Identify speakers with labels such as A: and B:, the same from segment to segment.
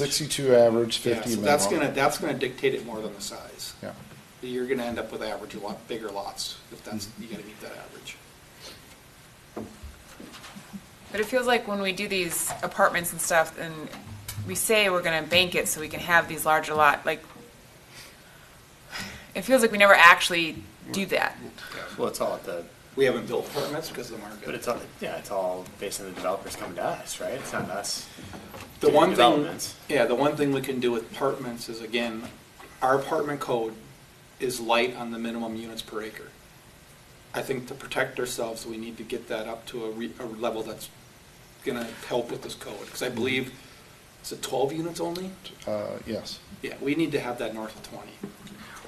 A: Sixty-two average,
B: Yeah,
A: fifty
B: so
A: minimum.
B: that's gonna, that's gonna dictate it more than the size.
A: Yeah.
B: You're gonna end up with average, a lot bigger lots, if that's,
A: Mm-hmm.
B: you gotta meet that average.
C: But it feels like when we do these apartments and stuff, and we say we're gonna bank it so we can have these larger lot, like, it feels like we never actually do that.
D: Well, it's all at the,
B: We haven't built apartments because of the market.
D: but it's all, yeah, it's all based on the developers coming to us, right? It's not us.
B: The one thing,
D: Developments.
B: yeah, the one thing we can do with apartments is, again, our apartment code is light on the minimum units per acre. I think to protect ourselves, we need to get that up to a, re- a level that's gonna help with this code, because I
A: Mm-hmm.
B: believe, is it twelve units only?
A: Uh, yes.
B: Yeah, we need to have that north of twenty.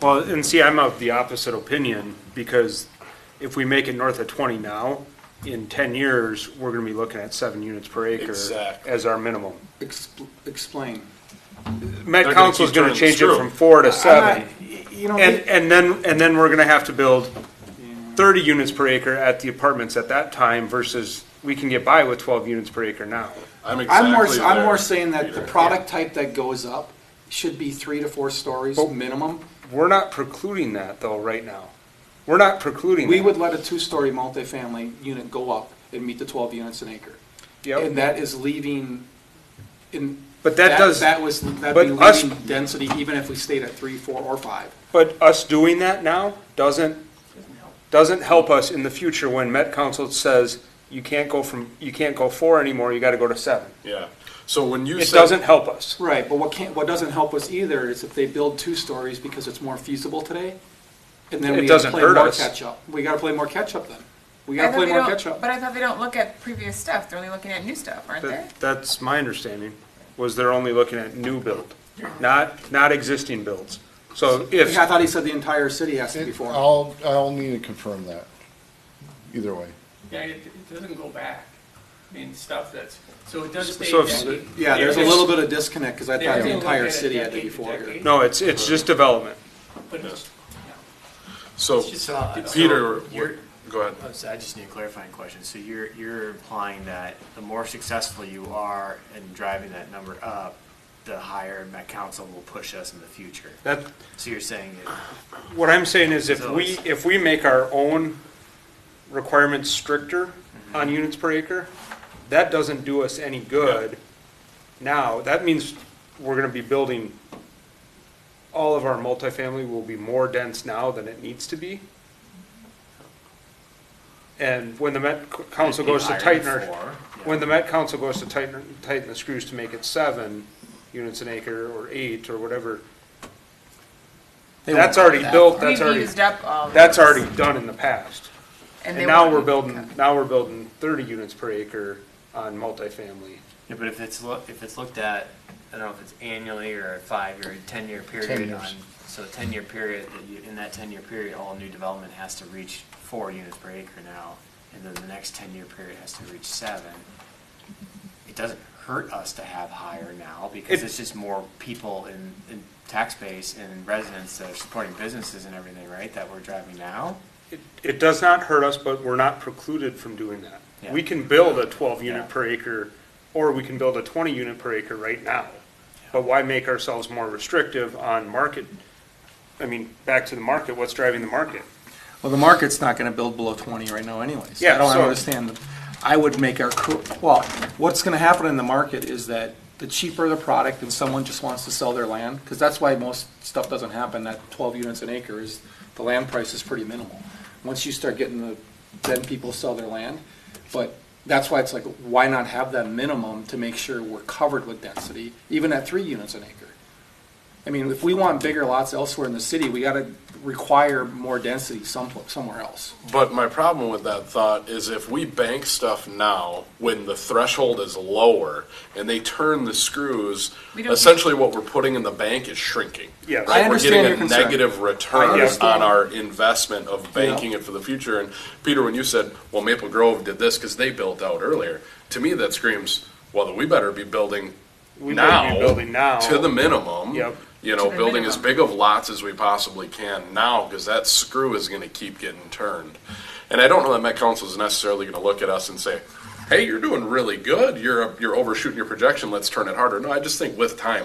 E: Well, and see, I'm of the opposite opinion, because if we make it north of twenty now, in ten years, we're gonna be looking at seven units per acre
F: Exactly.
E: as our minimum.
B: Expl- Explain.
E: Met
F: gonna
E: council's
F: keep
E: gonna
F: turning the
E: change it
F: screw.
E: from four to
B: I'm
E: seven,
B: not- y- You know,
E: and,
B: we-
E: and then, and then we're gonna have to build thirty units per acre at the apartments at that time versus we can get by with twelve units per acre now.
F: I'm
B: I'm more,
F: exactly
B: I'm
F: there,
B: more saying that the
F: Peter.
B: product type that goes up should be three to four stories minimum.
E: We're not precluding that though, right now. We're not precluding
B: We
E: that.
B: would let a two-story multifamily unit go up and meet the twelve units an acre.
E: Yep.
B: And that is leaving, in.
E: But that does-
B: That was, that'd
E: but
B: be
E: us-
B: leaving density even if we stayed at three, four, or five.
E: But us doing that now doesn't, doesn't help us in the future when Met Council says you can't go from, you can't go four anymore, you gotta go to seven.
F: Yeah, so when you
E: It
F: said.
E: doesn't help us.
B: Right, but what can't, what doesn't help us either is if they build two stories because it's more feasible today. And then
E: It
B: we gotta
E: doesn't
B: play
E: hurt
B: more
E: us.
B: catch-up. We gotta play more catch-up then. We
C: I
B: gotta
C: thought
B: play
C: they
B: more
C: don't-
B: catch-up.
C: But I thought they don't look at previous stuff, they're only looking at new stuff, aren't they?
E: That- That's my understanding, was they're only looking at new build, not, not existing builds. So if,
B: I thought he said the entire city has to be
A: It-
B: four.
A: I'll, I'll need to confirm that, either way.
G: Yeah, it, it doesn't go back. I mean, stuff that's, so it does stay.
E: So if-
G: decade-
B: Yeah, there's a
G: there's-
B: little bit of disconnect, because I
G: there's
B: thought the
G: a
B: entire
G: decade,
B: city had to be
G: decade,
B: four here.
G: decade,
E: no, it's, it's just development.
G: But it's,
F: So,
G: it's just, it's-
F: Oh, Peter,
D: uh, you're- oh,
F: what- go ahead.
D: So I just need a clarifying question. So you're, you're implying that the more successful you are in driving that number up, the higher Met Council will push us in the future.
E: That,
D: So you're saying that
E: what I'm saying is if
D: So
E: we,
D: it's-
E: if we make our own requirements stricter
D: Mm-hmm.
E: on units per acre, that doesn't do us any good now. That means we're gonna be building, all of our multifamily will be more dense now than it needs to be. And when the Met C-
D: It'd
E: Council
D: be
E: goes to
D: higher
E: tighten
D: than
E: our,
D: four,
E: when
D: yeah.
E: the Met Council goes to tighten, tighten the screws to make it seven units an acre or eight or whatever, that's already built, that's
C: We've
E: already.
C: used up all. of
E: That's
C: those,
E: already done in the past. And
C: they
E: now
C: won't
E: we're
C: be
E: building,
C: cut.
E: now we're building thirty units per acre on multifamily.
D: Yeah, but if it's look, if it's looked at, I don't know if it's annually or a five-year, ten-year
A: 10
D: period
A: years.
D: on, so a ten-year period, that you, in that ten-year period, all new development has to reach four units per acre now, and then the next ten-year period has to reach seven. It doesn't hurt us to have higher now, because
E: It-
D: it's just more people in, in tax base and residents that are supporting businesses and everything, right, that we're driving now?
E: It- It does not hurt us, but we're not precluded from doing that.
D: Yeah.
E: We can build a twelve unit
D: Yeah.
E: per acre, or we can build a twenty unit per acre right now. But why make ourselves more restrictive on market? I mean, back to the market, what's driving the market?
H: Well, the market's not gonna build below twenty right now anyways.
E: Yeah,
H: I don't
E: so-
H: understand. the- I would make our, cur- well, what's gonna happen in the market is that the cheaper the product and someone just wants to sell their land, because that's why most stuff doesn't happen, that twelve units an acre is, the land price is pretty minimal. Once you start getting the, then people sell their land, but that's why it's like, why not have that minimum to make sure we're covered with density, even at three units an acre? I mean, if we want bigger lots elsewhere in the city, we gotta require more density some, somewhere else.
F: But my problem with that thought is if we bank stuff now, when the threshold is lower, and they turn the screws,
C: We don't-
F: essentially what we're putting in the bank is shrinking.
E: Yes.
F: Right?
H: I
F: We're
H: understand your
F: getting a
H: concern.
F: negative return
H: understand.
F: on our investment of banking it for the future. And Peter, when you said, well, Maple Grove did this because they built out earlier, to me, that screams, well, we better be building
E: We better be
F: now
E: building now.
F: to the minimum.
E: Yep.
F: You know,
C: the
F: building as
C: minimum.
F: big of lots as we possibly can now, because that screw is gonna keep getting turned. And I don't know that Met Council is necessarily gonna look at us and say, hey, you're doing really good, you're, you're overshooting your projection, let's turn it harder. No, I just think with time,